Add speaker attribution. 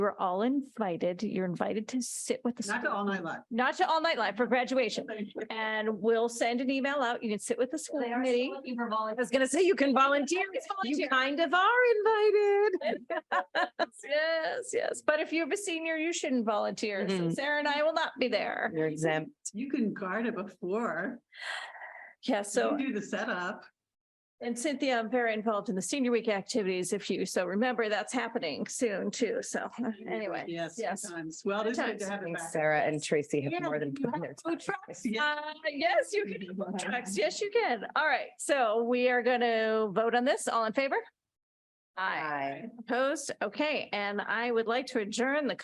Speaker 1: You're all invited. You're invited to sit with the,
Speaker 2: Not
Speaker 1: school,
Speaker 2: to all night live.
Speaker 1: not to all night live for graduation. And we'll send an email out. You can sit with the school committee.
Speaker 3: I was gonna say you can volunteer.
Speaker 1: It's volunteer.
Speaker 3: You kind of are invited.
Speaker 1: Yes, yes. But if you're a senior, you shouldn't volunteer. So
Speaker 3: Mhm.
Speaker 1: Sarah and I will not be there.
Speaker 3: You're exempt.
Speaker 2: You can guard it before.
Speaker 1: Yeah,
Speaker 2: You can
Speaker 1: so
Speaker 2: Do the setup.
Speaker 1: and Cynthia, I'm very involved in the senior week activities if you so remember that's happening soon too. So uh, anyway.
Speaker 2: Yes.
Speaker 1: yes.
Speaker 2: sometimes. Well, it's good to
Speaker 1: Sometimes.
Speaker 2: have it
Speaker 3: think
Speaker 2: back. Oh,
Speaker 3: Sarah and Tracy
Speaker 1: Yeah,
Speaker 3: have more than.
Speaker 1: you
Speaker 3: put in
Speaker 1: have
Speaker 3: their
Speaker 1: food
Speaker 3: time.
Speaker 1: trucks. Uh, yes, you can Trucks, yes, you can. All right, so we are going to vote on this. All in favor? Aye.
Speaker 3: Aye.
Speaker 1: Opposed? Okay, and I would like to adjourn the